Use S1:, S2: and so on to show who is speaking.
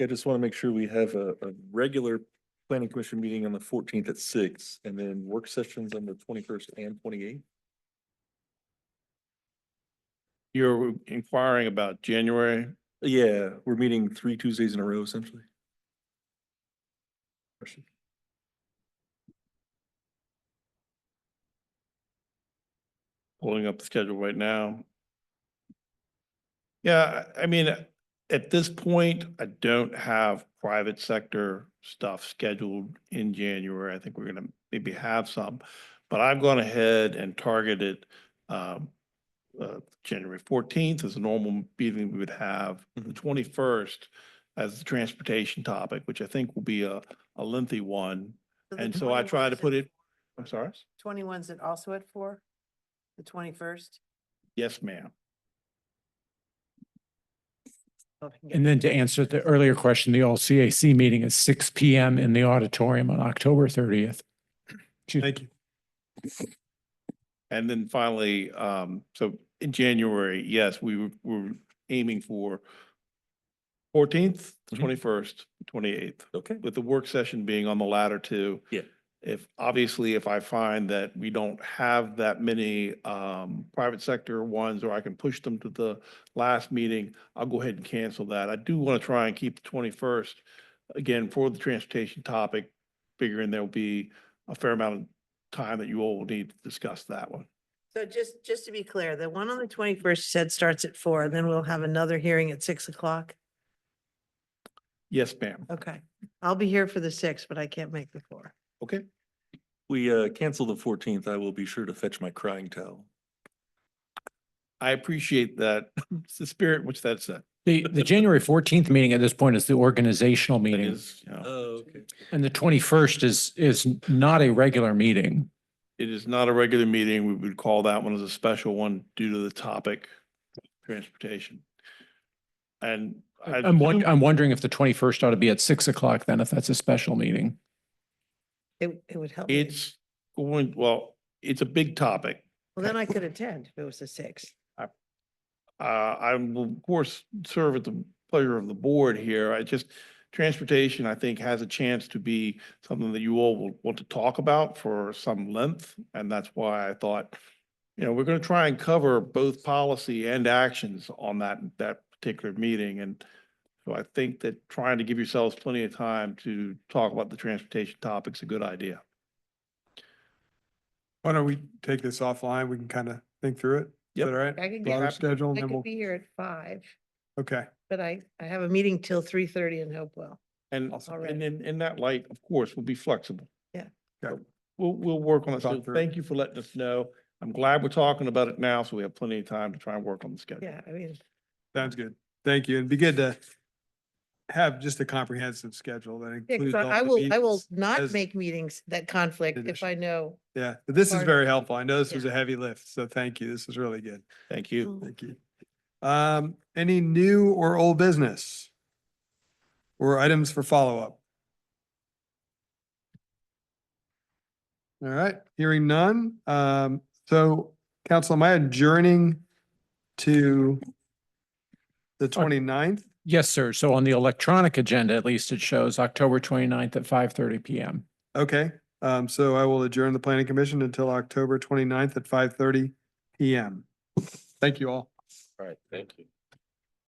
S1: I just want to make sure we have a, a regular planning commission meeting on the fourteenth at six and then work sessions on the twenty-first and twenty-eighth.
S2: You're inquiring about January?
S1: Yeah, we're meeting three Tuesdays in a row essentially.
S2: pulling up the schedule right now. Yeah, I I mean, at this point, I don't have private sector stuff scheduled in January. I think we're gonna maybe have some. But I've gone ahead and targeted um uh January fourteenth as a normal meeting we would have. The
S1: Mhm.
S2: twenty-first as the transportation topic, which I think will be a a lengthy one.
S3: the
S2: And so I
S3: 21's
S2: try to
S3: at-
S2: put it, I'm sorry?
S3: Twenty-one's at also at four? The twenty-first?
S2: Yes, ma'am.
S4: And then to answer the earlier question, the all CAC meeting is six P M in the auditorium on October thirtieth.
S2: Thank you. And then finally, um, so in January, yes, we were, were aiming for fourteenth,
S1: Mhm.
S2: twenty-first, twenty-eighth,
S1: Okay.
S2: with the work session being on the latter two.
S1: Yeah.
S2: If, obviously, if I find that we don't have that many, um, private sector ones, or I can push them to the last meeting, I'll go ahead and cancel that. I do want to try and keep the twenty-first, again, for the transportation topic, figuring there'll be a fair amount of time that you all will need to discuss that one.
S3: So just, just to be clear, the one on the twenty-first said starts at four, and then we'll have another hearing at six o'clock.
S2: Yes, ma'am.
S3: Okay, I'll be here for the six, but I can't make the four.
S2: Okay.
S1: We, uh, cancel the fourteenth. I will be sure to fetch my crying towel.
S2: I appreciate that. It's the spirit in which that's at.
S4: The, the January fourteenth meeting at this point is the organizational
S2: That
S4: meeting
S2: is, you know,
S1: Oh, okay.
S4: and the twenty-first is, is not a regular meeting.
S2: It is not a regular meeting. We would call that one as a special one due to the topic, transportation. And I.
S4: I'm, won-
S2: assume-
S4: I'm wondering if the twenty-first ought to be at six o'clock then, if that's a special meeting.
S3: It, it would help. me.
S2: It's going, well, it's a big topic.
S3: Well, then I could attend if it was the six.
S2: Uh, I will of course serve at the pleasure of the board here. I just, transportation, I think, has a chance to be something that you all will want to talk about for some length. And that's why I thought, you know, we're going to try and cover both policy and actions on that, that particular meeting. And so I think that trying to give yourselves plenty of time to talk about the transportation topic's a good idea.
S5: Why don't we take this offline? We can kind of think through it. Is
S2: Yep.
S5: that all right?
S3: I can get-
S5: Blotter schedule, and
S3: I
S5: then
S3: could
S5: we'll,
S3: be here at five,
S5: okay.
S3: but I, I have a meeting till three thirty in Hopewell.
S2: And,
S5: Awesome.
S2: and in, in that light, of course, we'll be flexible.
S3: Yeah.
S5: Okay.
S2: So We'll, we'll work on it. So
S5: Talk through it.
S2: thank you for letting us know. I'm glad we're talking about it now, so we have plenty of time to try and work on the schedule.
S3: Yeah, I mean,
S5: Sounds good. Thank you. It'd be good to have just a comprehensive schedule that
S3: yeah, 'cause
S5: includes. all
S3: I I
S5: the
S3: will, I will
S5: meetings.
S3: not
S5: as-
S3: make meetings that conflict if I know.
S5: Yeah, but this is
S3: part-
S5: very helpful. I know this
S3: Yeah.
S5: was a heavy lift, so thank you. This is really good.
S2: Thank you.
S5: Thank you. Um, any new or old business? Or items for follow-up? All right, hearing none. Um, so council, am I adjourning to the 29th?
S4: Yes, sir. So on the electronic agenda, at least it shows October 29th at five thirty P M.
S5: Okay, um, so I will adjourn the planning commission until October 29th at five thirty PM. Thank you all.
S1: All right, thank you.